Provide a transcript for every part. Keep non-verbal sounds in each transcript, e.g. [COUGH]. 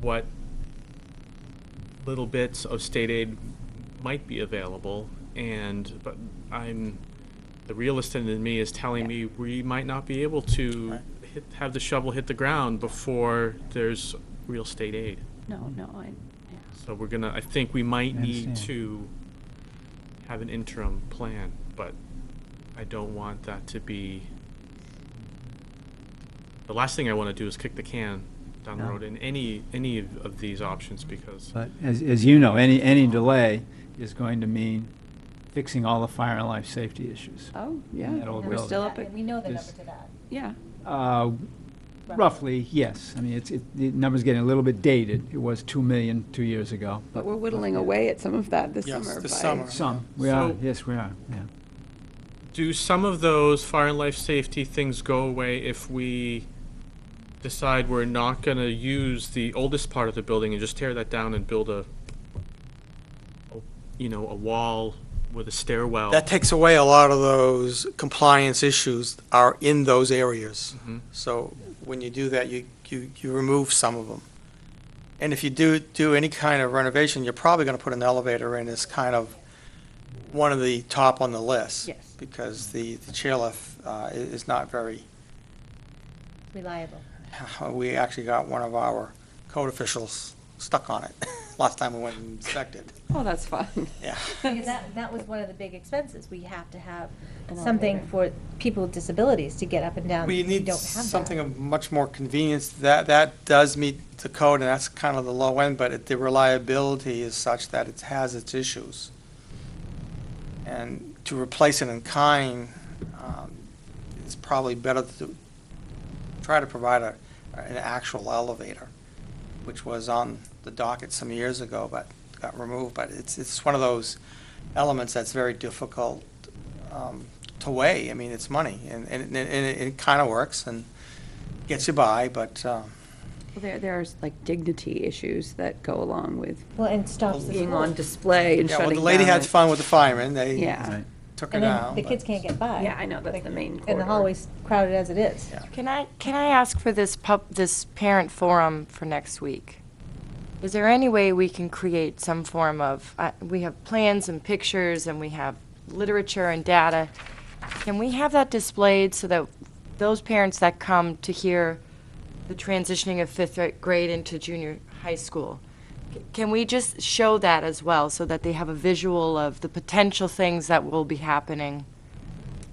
what little bits of state aid might be available, and but I'm the realist in me is telling me we might not be able to Right. hit, have the shovel hit the ground before there's real state aid. No, no, I, yeah. So we're gonna, I think we might I need understand. to have an interim plan, but I don't want that to be. The last thing I wanna do is kick the can down the No. road in any, any of of these options because, But as, as you know, any, any delay is going to mean fixing all the fire and life safety issues. oh, yeah, that old we're building. still up at, And we know the is- number to that. yeah, Uh, Roughly, yes. I mean, it's, it, the number's getting a little bit dated. It was 2 million two years ago. but we're whittling away at some of that this Yes, summer. this by- summer. Some, we are, So- yes, we are, yeah. do some of those fire and life safety things go away if we decide we're not gonna use the oldest part of the building and just tear that down and build a, a- you know, a wall with a stairwell? That takes away a lot of those compliance issues are in those areas. Mhm. So when you do that, you, you, you remove some of them. And if you do, do any kind of renovation, you're probably gonna put an elevator in as kind of one of the top on the list. Yes. Because the, the chairlift, uh, i- is not very, [LAUGHS] uh, Reliable. we actually got one of our code officials stuck on it [LAUGHS] last time we went and inspected. Oh, that's fun. [LAUGHS] Yeah. Because that, that was one of the big expenses. We have to have An something elevator. for people with disabilities to get up and down. We need don't have that. something of much more convenience. That, that does meet the code, and that's kind of the low end, but it- the reliability is such that it has its issues. And to replace it in kind, um, it's probably better to try to provide a, an actual elevator, which was on the docket some years ago, but got removed. But it's, it's one of those elements that's very difficult um, to weigh. I mean, it's money, and, and, and it, it kind of works and gets you by, but, um, [LAUGHS] There, there's like dignity issues that go along with Well, and stops the being on school. display and yeah, well, shutting the lady down had and- fun with the firemen, they Yeah. Right. took her And down. then the but- kids can't get by. Yeah, I know, that's the main And the corridor. hallway's crowded as it is. Yeah. Can I, can I ask for this pub, this parent forum for next week? Is there any way we can create some form of, uh, we have plans and pictures and we have literature and data. Can we have that displayed so that those parents that come to hear the transitioning of fifth gra- grade into junior high school, c- can we just show that as well so that they have a visual of the potential things that will be happening?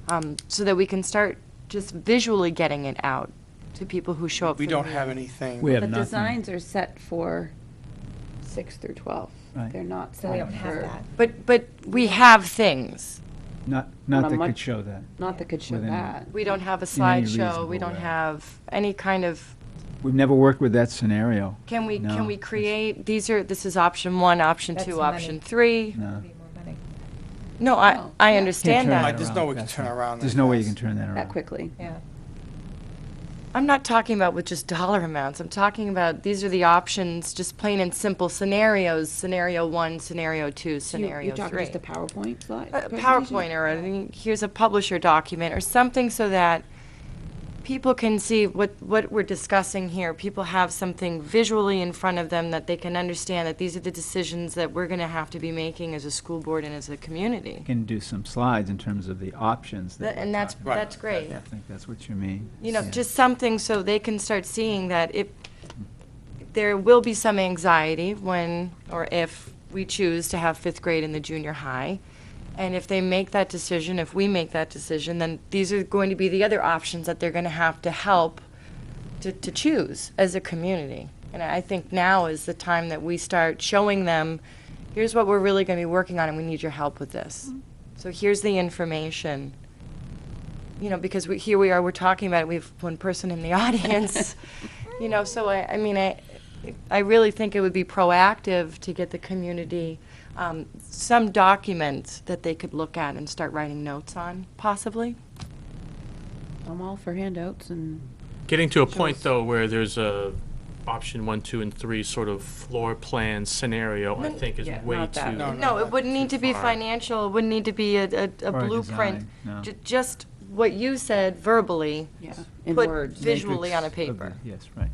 um, so that we can start just visually getting it out to people who show up. We for the don't meeting. have anything. We have But nothing. designs are set for six through 12. Right. They're not So we set don't have for, that. But but we have things. Not, not a that much- could show that. not that could show Within- that. We don't have a In any slideshow. reasonable We don't way. have any kind of. We've never worked with that scenario. Can we No. can we create these are this is option one, option That's two, money. option three. No. Be more money. No, No, I I Oh. yeah. Can't understand turn that. I- there's around no way you can fast turn enough. around There's that no way you can fast. turn that around. That quickly. Yeah. I'm not talking about with just dollar amounts. I'm talking about these are the options, just plain and simple scenarios. Scenario one, scenario two, So you- scenario You're talking three. just a PowerPoint slide? Uh, a presentation? PowerPoint or any, here's a publisher document or something so that people can see what, what we're discussing here. People have something visually in front of them that they can understand that these are the decisions that we're gonna have to be making as a school board and as a community. Can do some slides in terms of the options that. That- And that's, Right. that's great. I think that's what you mean. You know, Yeah. just something so they can start seeing that if, there will be some anxiety when, or if we choose to have fifth grade in the junior high. And if they make that decision, if we make that decision, then these are going to be the other options that they're going to have to help to, to choose as a community. And I think now is the time that we start showing them, here's what we're really going to be working on, and we need your help with this. So here's the information. You know, because we, here we are, we're talking about it, we have one person in the [LAUGHS] audience. You know, so I, I mean, I, I really think it would be proactive to get the community um, some document that they could look at and start writing notes on, possibly. I'm all for handouts and Getting to a point, though, where there's a option one, two, and three sort of floor plan scenario, I think is yeah, way not that. too. No, No, it wouldn't need to be far. financial, it wouldn't need to be a, a- a Or a blueprint. design, no. Ju- Just what you said verbally, Yeah, in but words. visually on a Matrix of paper. the- Yes, right.